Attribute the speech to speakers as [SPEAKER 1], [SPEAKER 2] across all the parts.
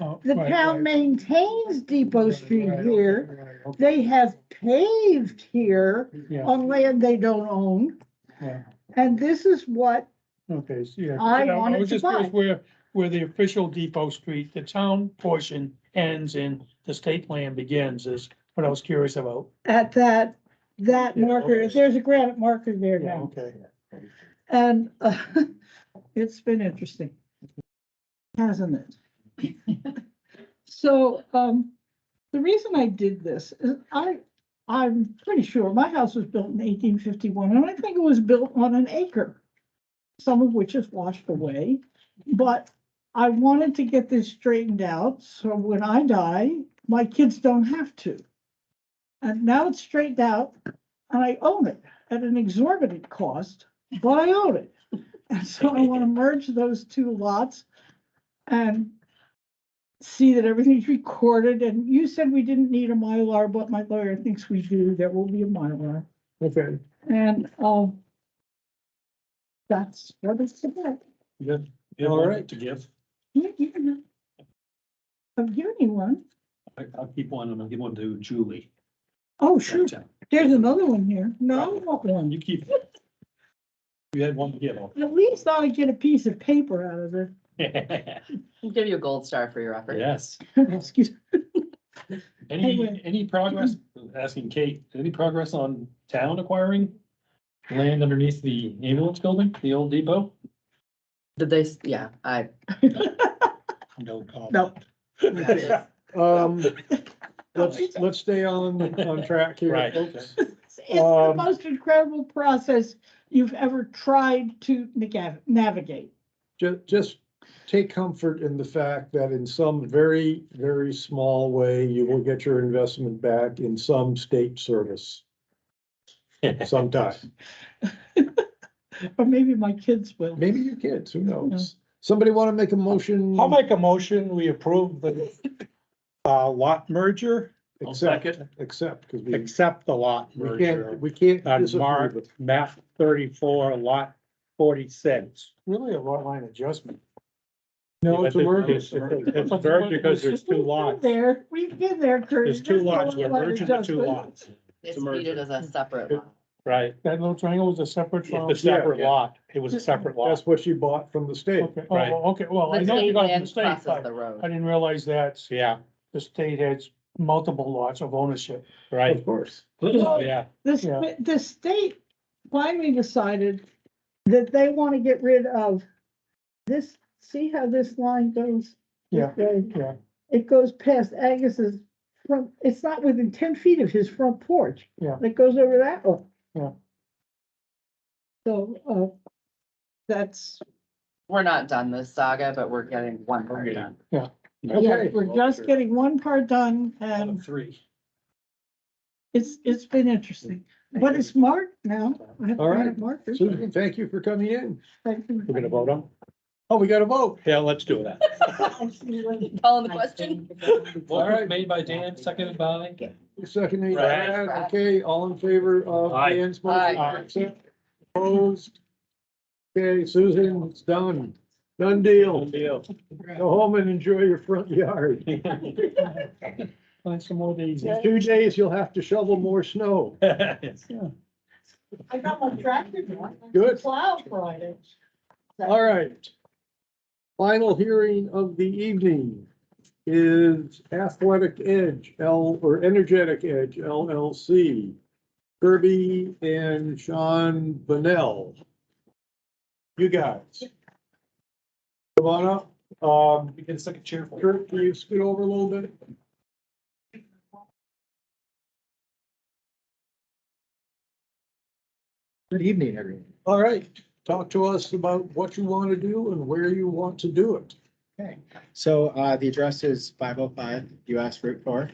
[SPEAKER 1] Oh,
[SPEAKER 2] The
[SPEAKER 1] right,
[SPEAKER 2] town
[SPEAKER 1] right,
[SPEAKER 2] maintains Depot
[SPEAKER 1] right,
[SPEAKER 2] Street
[SPEAKER 1] right,
[SPEAKER 2] here.
[SPEAKER 1] right, right, okay,
[SPEAKER 2] They Oh. have paved here
[SPEAKER 1] Yeah,
[SPEAKER 2] on land they don't own.
[SPEAKER 1] yeah,
[SPEAKER 2] And this is what
[SPEAKER 1] okay, so yeah.
[SPEAKER 2] I
[SPEAKER 1] Yeah,
[SPEAKER 2] wanted
[SPEAKER 1] was
[SPEAKER 2] to
[SPEAKER 1] just curious
[SPEAKER 2] buy.
[SPEAKER 1] Where, where the official Depot Street, the town portion ends and the state land begins is what I was curious about.
[SPEAKER 2] at that, that
[SPEAKER 1] Yeah,
[SPEAKER 2] marker,
[SPEAKER 1] okay.
[SPEAKER 2] there's a granite marker there
[SPEAKER 1] Yeah,
[SPEAKER 2] now.
[SPEAKER 1] okay.
[SPEAKER 2] And uh, it's been interesting. Hasn't it? So, um, the reason I did this is I, I'm pretty sure my house was built in eighteen fifty-one and I think it was built on an acre. Some of which is washed away, but I wanted to get this straightened out. So when I die, my kids don't have to. And now it's straightened out and I own it at an exorbitant cost but I own it. And so I want to merge those two lots and see that everything's recorded. And you said we didn't need a Mylar, but my lawyer thinks we do. There will be a Mylar.
[SPEAKER 1] Okay,
[SPEAKER 2] And, um, that's what it's about.
[SPEAKER 1] good.
[SPEAKER 3] Yeah,
[SPEAKER 1] All
[SPEAKER 3] all
[SPEAKER 1] right.
[SPEAKER 3] right to give.
[SPEAKER 2] Yeah, yeah. I've given you one.
[SPEAKER 3] I, I'll keep one and I'll give one to Julie.
[SPEAKER 2] Oh,
[SPEAKER 3] back
[SPEAKER 2] sure.
[SPEAKER 3] down.
[SPEAKER 2] There's another one here. No, I want one.
[SPEAKER 3] You keep. it. You had one to give. all.
[SPEAKER 2] At least I'll get a piece of paper out of it.
[SPEAKER 4] We'll give you a gold star for your effort.
[SPEAKER 3] Yes.
[SPEAKER 2] Excuse,
[SPEAKER 3] Any,
[SPEAKER 2] Anyway.
[SPEAKER 3] any progress, asking Kate, any progress on town acquiring land underneath the ambulance building, the old depot?
[SPEAKER 4] Did they, s- yeah, I,
[SPEAKER 3] No.
[SPEAKER 1] uh,
[SPEAKER 2] no.
[SPEAKER 5] Um, let's,
[SPEAKER 2] It's-
[SPEAKER 5] let's stay on, on track here.
[SPEAKER 3] Right.
[SPEAKER 5] folks.
[SPEAKER 2] It's the
[SPEAKER 5] Um,
[SPEAKER 2] most incredible process you've ever tried to naga- navigate.
[SPEAKER 5] Ju- just take comfort in the fact that in some very, very small way, you will get your investment back in some state service sometime.
[SPEAKER 2] Or maybe my kids will.
[SPEAKER 5] Maybe your kids, who knows? Somebody want to make a motion?
[SPEAKER 1] I'll make a motion, we approve the uh, lot merger,
[SPEAKER 3] I'll
[SPEAKER 5] Except,
[SPEAKER 3] second.
[SPEAKER 5] except, because we,
[SPEAKER 1] accept the lot
[SPEAKER 5] we can't,
[SPEAKER 1] merger
[SPEAKER 5] we can't.
[SPEAKER 1] on
[SPEAKER 5] disapprove
[SPEAKER 1] Mark,
[SPEAKER 5] it.
[SPEAKER 1] map thirty-four, lot forty-six.
[SPEAKER 5] Really a lot line adjustment.
[SPEAKER 1] Yeah,
[SPEAKER 5] No, it's a
[SPEAKER 1] but
[SPEAKER 5] merger.
[SPEAKER 1] It's it's a merger because there's two
[SPEAKER 2] We've been
[SPEAKER 1] lots.
[SPEAKER 2] There, we've been there, Kurt.
[SPEAKER 1] There's two lots, we're merging the two lots,
[SPEAKER 4] it's
[SPEAKER 3] a merger.
[SPEAKER 4] treated as a separate
[SPEAKER 5] It-
[SPEAKER 4] lot.
[SPEAKER 1] right?
[SPEAKER 5] That little triangle was a separate
[SPEAKER 1] It's a separate lot, it was a separate lot.
[SPEAKER 5] That's what she bought from the state.
[SPEAKER 1] Okay, oh,
[SPEAKER 3] Right.
[SPEAKER 1] okay, well, I
[SPEAKER 4] The
[SPEAKER 1] know you
[SPEAKER 4] state
[SPEAKER 1] got a
[SPEAKER 4] land
[SPEAKER 1] mistake,
[SPEAKER 4] crosses
[SPEAKER 1] but
[SPEAKER 4] the
[SPEAKER 1] I
[SPEAKER 4] road.
[SPEAKER 1] didn't realize that
[SPEAKER 3] Yeah,
[SPEAKER 1] the state has multiple lots of ownership.
[SPEAKER 3] right,
[SPEAKER 5] Of course.
[SPEAKER 3] yeah,
[SPEAKER 2] This,
[SPEAKER 1] Yeah.
[SPEAKER 2] the state finally decided that they want to get rid of this, see how this line goes?
[SPEAKER 1] Yeah,
[SPEAKER 2] Okay.
[SPEAKER 1] yeah.
[SPEAKER 2] It goes past Agus's front, it's not within ten feet of his front porch.
[SPEAKER 1] Yeah.
[SPEAKER 2] It goes over that one.
[SPEAKER 1] Yeah.
[SPEAKER 2] So, uh, that's,
[SPEAKER 4] We're not done this saga, but we're getting one part
[SPEAKER 3] Okay.
[SPEAKER 4] done.
[SPEAKER 2] yeah,
[SPEAKER 5] Okay,
[SPEAKER 2] we're just getting one part done
[SPEAKER 3] out of
[SPEAKER 2] and
[SPEAKER 3] three.
[SPEAKER 2] it's, it's been interesting. But it's marked now. I have
[SPEAKER 5] All right.
[SPEAKER 2] granite markers.
[SPEAKER 5] Susan, thank you for coming in.
[SPEAKER 2] Thank you.
[SPEAKER 1] We're gonna vote on?
[SPEAKER 5] Oh, we got a vote.
[SPEAKER 1] Yeah, let's do that.
[SPEAKER 4] Calling the question?
[SPEAKER 3] Motion made by Dan, seconded by.
[SPEAKER 5] Second,
[SPEAKER 3] Right.
[SPEAKER 5] okay, all in favor of
[SPEAKER 3] Aye.
[SPEAKER 5] Dan's
[SPEAKER 4] Aye.
[SPEAKER 5] motion? Opposed? Okay, Susan, it's done. Done deal.
[SPEAKER 3] Deal.
[SPEAKER 5] Go home and enjoy your front yard.
[SPEAKER 1] Find some more days.
[SPEAKER 5] In two days, you'll have to shovel more snow.
[SPEAKER 2] I got my tractor going.
[SPEAKER 5] Good.
[SPEAKER 2] Plow Friday.
[SPEAKER 5] All right. Final hearing of the evening is Athletic Edge L, or Energetic Edge LLC. Kirby and Sean Bonnell. You guys. Come on up. Um,
[SPEAKER 3] We get a second chair for.
[SPEAKER 5] Kurt, can you scoot over a little bit?
[SPEAKER 6] Good evening, everyone.
[SPEAKER 5] All right, talk to us about what you want to do and where you want to do it.
[SPEAKER 6] So uh, the address is five oh five US Route four.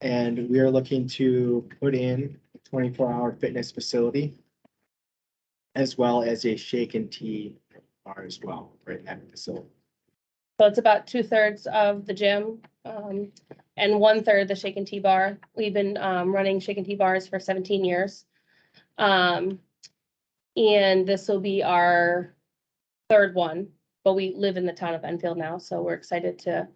[SPEAKER 6] And we are looking to put in a twenty-four hour fitness facility as well as a shake and tea bar as well, right at the facility.
[SPEAKER 7] So it's about two thirds of the gym, um, and one third the shake and tea bar. We've been, um, running shake and tea bars for seventeen years. Um, and this will be our third one. But we live in the town of Enfield now, so we're excited to